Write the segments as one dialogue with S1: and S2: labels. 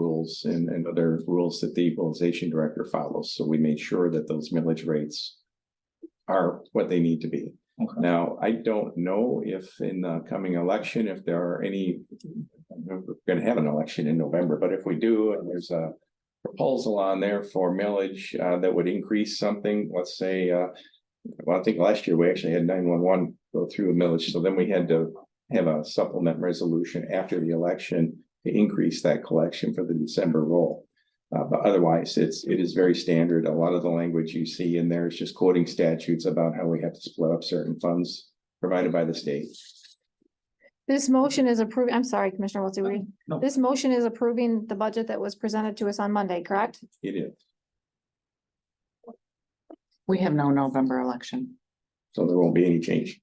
S1: rules and, and other rules that the equalization director follows. So we made sure that those millage rates are what they need to be.
S2: Okay.
S1: Now, I don't know if in the coming election, if there are any, we're gonna have an election in November, but if we do, and there's a proposal on there for millage uh, that would increase something, let's say, uh, well, I think last year we actually had nine one one go through a millage, so then we had to have a supplement resolution after the election to increase that collection for the December roll. Uh, but otherwise, it's, it is very standard. A lot of the language you see in there is just quoting statutes about how we have to split up certain funds provided by the state.
S3: This motion is approving, I'm sorry, Commissioner Wiltsey,
S2: No.
S3: this motion is approving the budget that was presented to us on Monday, correct?
S1: It is.
S4: We have no November election.
S1: So there won't be any change.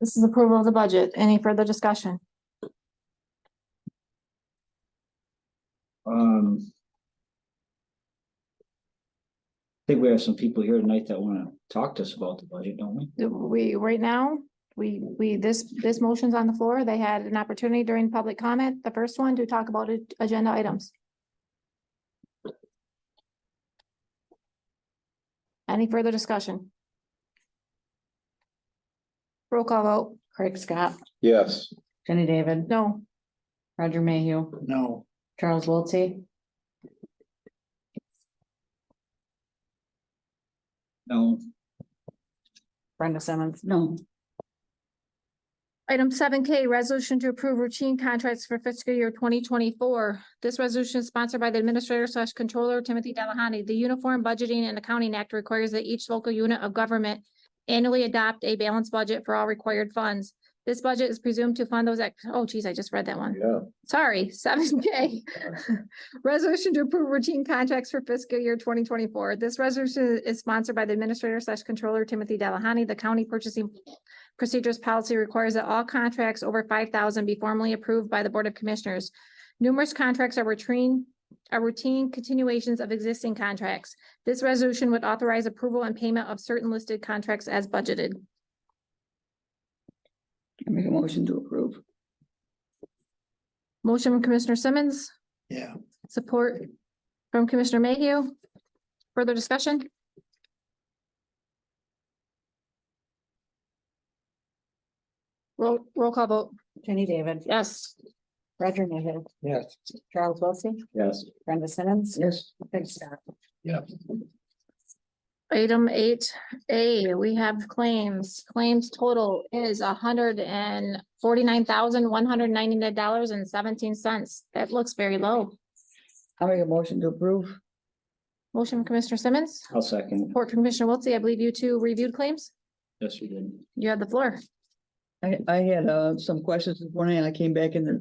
S3: This is approval of the budget. Any further discussion?
S2: Um. I Think we have some people here tonight that wanna talk to us about the budget, don't we?
S3: Do We, right now, we, we, this, this motion's on the floor. They had an opportunity during public comment, the first one, to talk about a- agenda items. Any further discussion? Roll call vote.
S4: Craig Scott,
S1: Yes.
S4: Jenny David,
S3: No.
S4: Roger Mayhew,
S2: No.
S4: Charles Wiltie,
S2: No,
S4: Brenda Simmons. No.
S3: Item seven K, resolution to approve routine contracts for fiscal year twenty twenty-four. This resolution is sponsored by the Administrator slash Controller Timothy Delahoney. The Uniform Budgeting and Accounting Act requires that each local unit of government annually adopt a balanced budget for all required funds. This budget is presumed to fund those, act- oh geez, I just read that one.
S1: Yeah.
S3: Sorry, seven K. Resolution to approve routine contracts for fiscal year twenty twenty-four. This resolution is sponsored by the Administrator slash Controller Timothy Delahoney. The county purchasing procedures policy requires that all contracts over five thousand be formally approved by the Board of Commissioners. Numerous contracts are routine, are routine continuations of existing contracts. This resolution would authorize approval and payment of certain listed contracts as budgeted.
S4: I make a motion to approve.
S3: Motion from Commissioner Simmons,
S2: yeah.
S3: support from Commissioner Mayhew. Further discussion? Roll, roll call vote.
S4: Jenny David,
S3: Yes.
S4: Roger Mayhew,
S2: Yes.
S4: Charles Wiltie,
S2: Yes.
S4: Brenda Simmons.
S2: Yes.
S4: Craig Scott.
S3: Item eight A, we have claims. Claims total is hundred and forty-nine thousand, one hundred ninety-nine dollars and seventeen cents. That looks very low.
S4: I make a motion to approve.
S3: Motion from Commissioner Simmons,
S2: I'll second.
S3: report from Commissioner Wiltie. I believe you two reviewed claims.
S2: Yes, we did.
S3: You had the floor.
S5: I, I had, uh, some questions this morning. I came back in there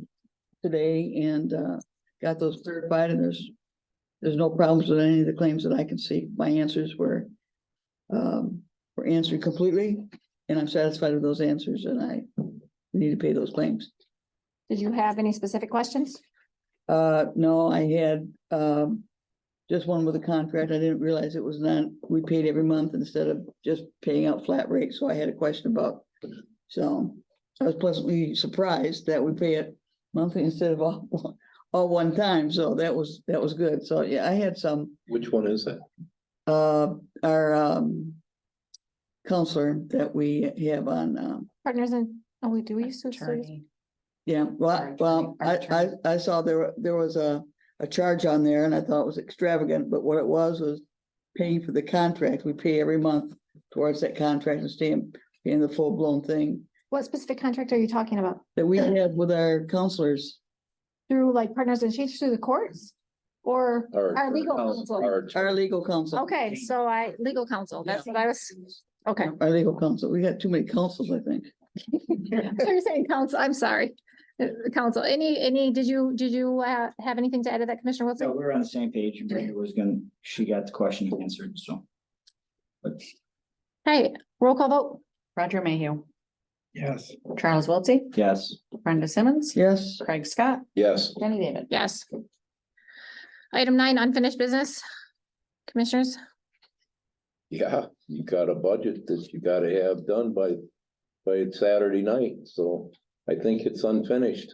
S5: today and, uh, got those clarified and there's, there's no problems with any of the claims that I can see. My answers were, um, were answered completely and I'm satisfied with those answers and I need to pay those claims.
S3: Did you have any specific questions?
S5: Uh, no, I had, um, just one with a contract. I didn't realize it was not, we paid every month instead of just paying out flat rate, so I had a question about. So I was pleasantly surprised that we pay it monthly instead of all, all one time, so that was, that was good. So, yeah, I had some,
S6: Which one is that?
S5: uh, our, um, counselor that we have on, um,
S3: Partners in, oh, we do we used to?
S4: Attorney.
S5: Yeah,
S4: Our
S5: well, well, I,
S4: attorney- our
S5: I, I saw there, were- there was a, a charge on there and I thought it was extravagant, but what it was was paying for the contract. We pay every month towards that contract and staying, paying the full blown thing
S3: What specific contract are you talking about?
S5: that we have with our counselors,
S3: Through like partners in chiefs through the courts? Or our legal counsel?
S6: Our,
S5: our legal counsel.
S3: Okay, so I, legal counsel, that's what I was, okay.
S5: Our legal counsel. We got too many counsels, I think.
S3: So You're saying council, I'm sorry, Uh, council, any, any, did you, did you uh, have anything to add to that, Commissioner
S2: So
S3: Wilson?
S2: we're on the same page. Brenda was gonna, she got the question answered, so.
S3: Hey, roll call vote,
S4: Roger Mayhew,
S2: Yes.
S4: Charles Wiltie,
S2: Yes.
S4: Brenda Simmons.
S5: Yes,
S4: Craig Scott,
S6: yes,
S4: Jenny David.
S3: yes. Item nine, unfinished business. Commissioners,
S6: yeah, you got a budget that you gotta have done by, by Saturday night, so I think it's unfinished.